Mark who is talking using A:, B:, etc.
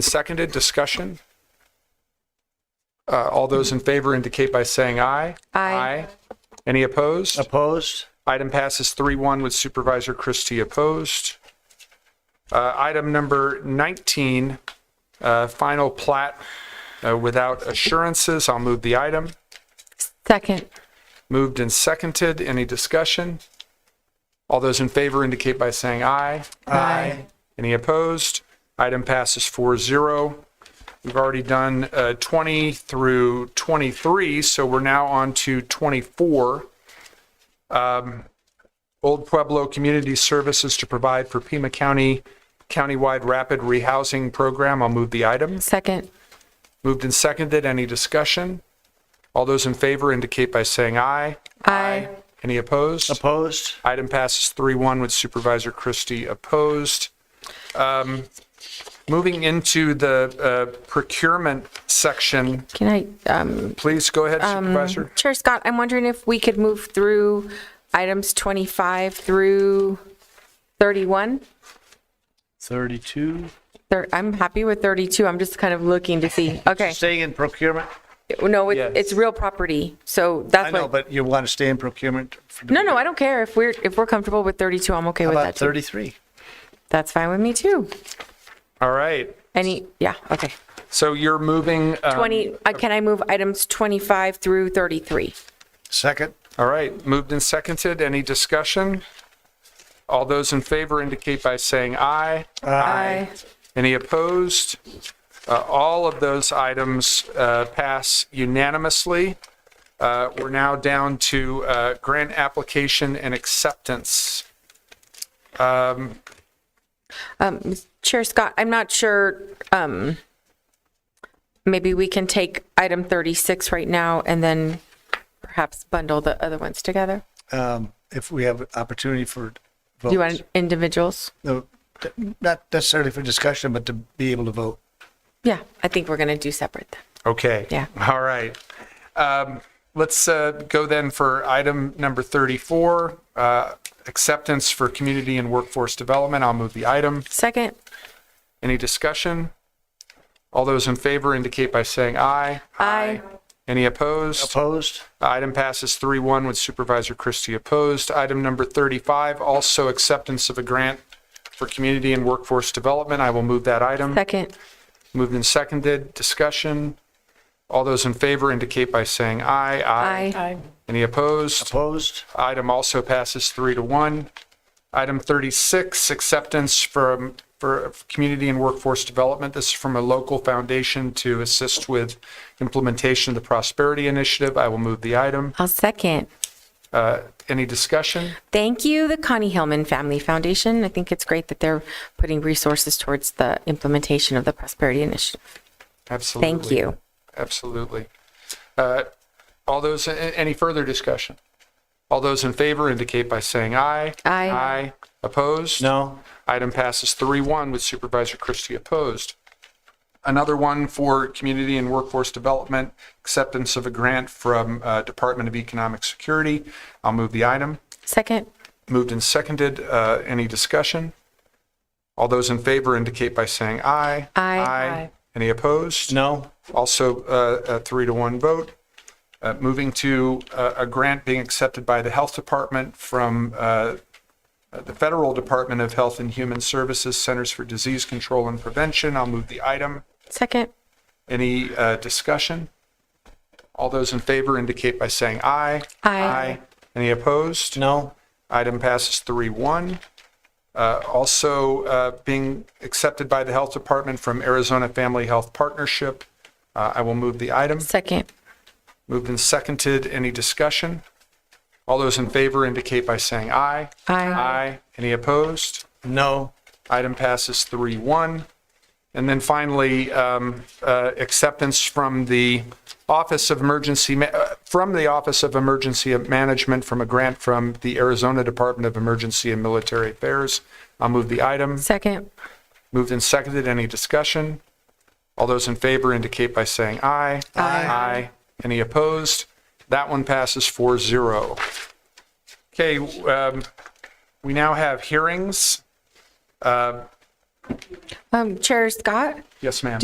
A: Seconded, discussion? Uh, All those in favor indicate by saying aye.
B: Aye.
A: Any opposed?
C: Opposed?
A: Item passes 3-1 with Supervisor Christie opposed. Uh, Item number 19, uh, final plat uh, without assurances. I'll move the item.
B: Second.
A: Moved and seconded. Any discussion? All those in favor indicate by saying aye.
B: Aye.
A: Any opposed? Item passes 4-0. We've already done uh, 20 through 23, so we're now on to 24. Um, Old Pueblo Community Services to provide for Pima County countywide rapid rehousing program. I'll move the item.
B: Second.
A: Moved and seconded. Any discussion? All those in favor indicate by saying aye.
B: Aye.
A: Any opposed?
C: Opposed?
A: Item passes 3-1 with Supervisor Christie opposed. Um, Moving into the uh, procurement section,
B: Can I, um,
A: please go ahead Supervisor.
B: Chair Scott, I'm wondering if we could move through items 25 through 31?
C: 32.
B: Thir- I'm happy with 32. I'm just kind of looking to see. Okay.
C: Staying in procurement?
B: No, it-
A: Yes.
B: it's real property. So
C: I
B: that's
C: know,
B: what.
C: but you want to stay in procurement? for the-
B: No, no, I don't care. If we're, if we're comfortable with 32, I'm okay
C: How
B: with
C: about
B: that too.
C: 33?
B: That's fine with me too.
A: All right,
B: Any, yeah, okay.
A: so you're moving. um,
B: 20, uh, can I move items 25 through 33?
C: Second?
A: All right, moved and seconded. Any discussion? All those in favor indicate by saying aye.
B: Aye.
A: Any opposed? Uh, All of those items uh, pass unanimously. Uh, We're now down to uh, grant application and acceptance.
B: Chair Scott, I'm not sure, um, maybe we can take item 36 right now and then perhaps bundle the other ones together?
C: Um, If we have opportunity for
B: Do you want
C: votes?
B: individuals?
C: No, th- Not necessarily for discussion, but to be able to vote.
B: Yeah, I think we're going to do separate then.
A: Okay.
B: Yeah.
A: All right. Um, Let's uh, go then for item number 34, uh, acceptance for community and workforce development. I'll move the item.
B: Second,
A: Any discussion? All those in favor indicate by saying aye.
B: Aye.
A: Any opposed?
C: Opposed?
A: Item passes 3-1 with Supervisor Christie opposed. Item number 35, also acceptance of a grant for community and workforce development. I will move that item.
B: second,
A: Moved and seconded. Discussion. All those in favor indicate by saying aye.
B: aye.
A: Any opposed?
C: Opposed?
A: Item also passes three to one. Item 36, acceptance from, for community and workforce development. This is from a local foundation to assist with implementation of the Prosperity Initiative. I will move the item.
B: I'll second.
A: Uh, Any discussion?
B: Thank you, the Connie Hillman Family Foundation. I think it's great that they're putting resources towards the implementation of the Prosperity Initiative.
A: Absolutely.
B: Thank you.
A: Absolutely. Uh, All those, a- a- any further discussion? All those in favor indicate by saying aye.
B: Aye.
A: Aye. Opposed?
C: No?
A: Item passes 3-1 with Supervisor Christie opposed. Another one for Community and Workforce Development, acceptance of a grant from uh, Department of Economic Security. I'll move the item.
B: Second,
A: Moved and seconded. Uh, Any discussion? All those in favor indicate by saying aye.
B: Aye.
A: Aye. Any opposed?
C: No?
A: Also, uh, a three to one vote. Uh, Moving to uh, a grant being accepted by the Health Department from uh, the Federal Department of Health and Human Services Centers for Disease Control and Prevention. I'll move the item.
B: second,
A: Any uh, discussion? All those in favor indicate by saying aye.
B: Aye.
A: Any opposed?
C: No?
A: Item passes 3-1. Uh, Also uh, being accepted by the Health Department from Arizona Family Health Partnership. Uh, I will move the item.
B: second,
A: Moved and seconded. Any discussion? All those in favor indicate by saying aye.
B: Aye.
A: Aye. Any opposed?
C: No?
A: Item passes 3-1. And then finally, um, uh, acceptance from the Office of Emergency, Ma- uh, from the Office of Emergency Management from a grant from the Arizona Department of Emergency and Military Affairs. I'll move the item.
B: second,
A: Moved and seconded. Any discussion? All those in favor indicate by saying aye. Aye. Aye. Any opposed? That one passes 4-0. Okay, um, we now have hearings. Uh,
D: Um, Chair Scott?
B: Yes, ma'am.